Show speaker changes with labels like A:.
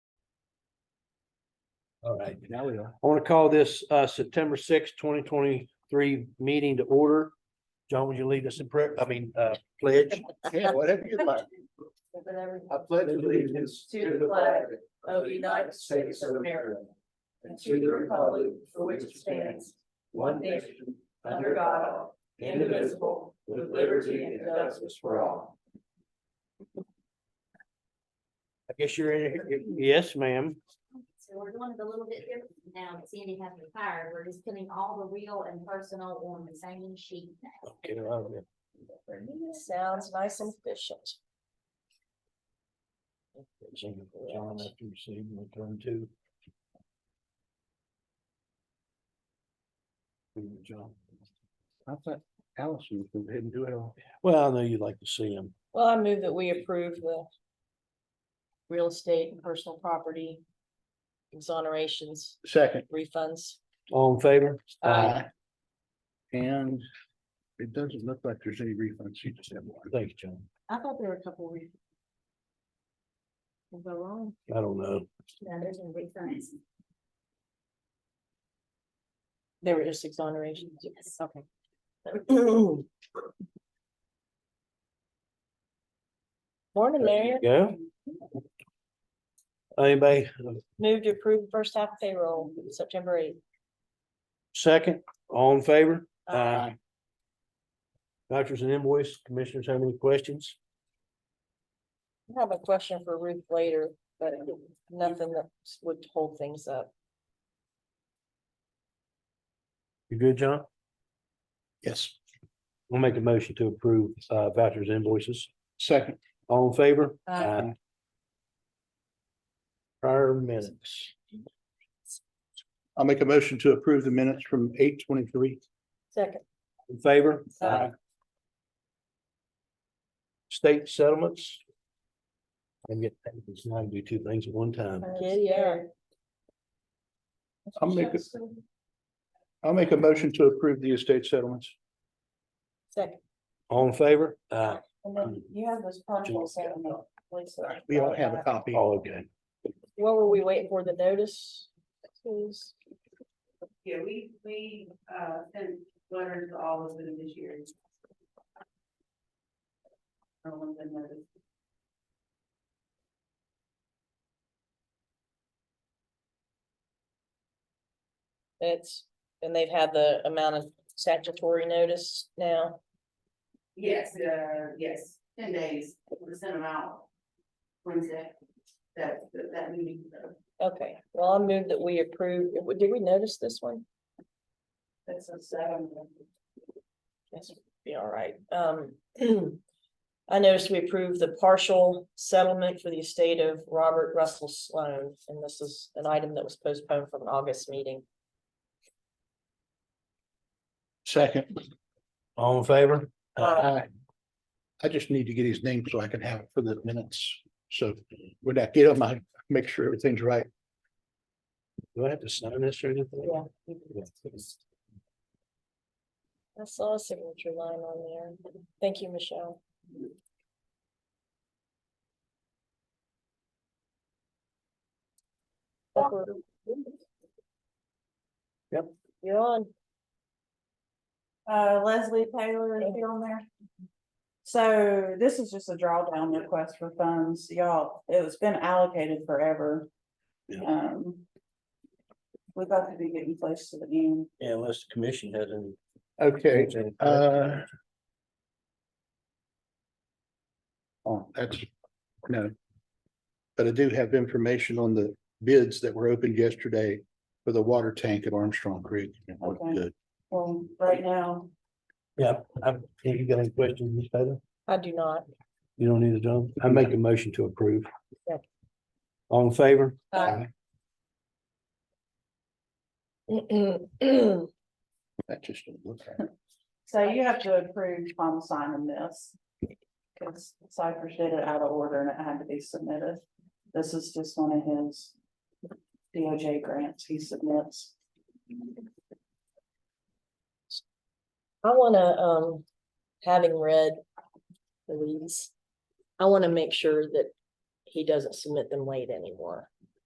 A: All right,
B: Now we are.
A: I want to call this uh September sixth, twenty twenty-three meeting to order. John, would you lead us in prayer? I mean, uh, pledge.
B: Yeah, whatever you like.
C: To
B: I pledge allegiance
C: the flag of the United States of America and to the republic for which it stands, one nation, under God, indivisible, with liberty and justice for all.
A: I guess you're in, here. yes, ma'am.
D: So we're doing it a little bit different now that Sandy has retired. We're just putting all the real and personal on the same sheet now.
A: Okay, all right.
C: Sounds nice and efficient.
A: John, after you see, we'll turn to. John.
B: I thought Allison was gonna go ahead and do it all.
A: Well, I know you'd like to see him.
C: Well, I move that we approve the real estate and personal property exonerations,
B: Second.
C: refunds.
A: All in favor?
B: And it doesn't look like there's any refunds. You just have one.
A: Thank you, John.
C: I thought there were a couple refunds. Was I wrong?
A: I don't know.
D: Now, there's no refunds.
C: They were just exonerations.
D: Yes.
C: Okay. Morning, Mayor.
A: Yeah? Anybody
C: Move to approve first half payroll, September eighth.
A: second? All in favor? Aye. Vouchers and invoice, commissioners have any questions?
C: I have a question for Ruth later, but nothing that would hold things up.
A: You good, John?
B: Yes.
A: We'll make a motion to approve uh vouchers and invoices.
B: Second.
A: All in favor?
C: Aye.
A: Prior minutes.
B: I'll make a motion to approve the minutes from eight twenty-three.
C: Second,
A: In favor?
C: Aye.
A: State settlements. I get, it's not do two things at one time.
C: Get yeah.
B: I'll make it. I'll make a motion to approve the estate settlements.
C: Second.
A: All in favor? Aye.
C: And then you have those contracts. I don't know, Lisa.
B: We all have a copy.
A: All okay.
C: What were we waiting for, the notice? Please.
E: Yeah, we, we, uh, sent letters to all of them this year. No one's been noticed.
C: It's, and they've had the amount of statutory notice now.
E: Yes, uh, yes, ten days, we sent them out. Wednesday, that, that- that meeting, uh, so
C: Okay, well, I move that we approve, did we notice this one?
E: that's a seven.
C: Yes, be all right. Um, I noticed we approved the partial settlement for the estate of Robert Russell Sloan, and this is an item that was postponed from an August meeting.
B: Second.
A: All in favor?
B: Aye. I just need to get his name so I can have it for the minutes. So when I get him, I make sure everything's right.
A: Do I have to sign this or anything?
C: Yeah. I saw a signature line on there. Thank you, Michelle.
A: Yep.
C: You're on.
F: Uh, Leslie Taylor is she on there. So this is just a drawdown request for funds, y'all, it's been allocated forever.
A: Yeah.
F: Um. We've got to be getting close to the end.
A: Yeah, Unless the commission has any.
B: Okay, uh, Oh, that's, no. But I do have information on the bids that were opened yesterday for the water tank at Armstrong Creek. It looked
F: Okay.
B: Good.
F: Well, right now,
A: Yeah, I, you got any questions, Ms. Taylor?
C: I do not.
A: You don't need a John? I make a motion to approve.
C: Yeah.
A: All in favor?
C: Aye.
B: That just didn't look right.
F: so you have to approve final signing this. Cause Cypress did it out of order and it had to be submitted. This is just one of his. DOJ grants he submits.
C: I wanna, um, having read the leads, I wanna make sure that he doesn't submit them late anymore.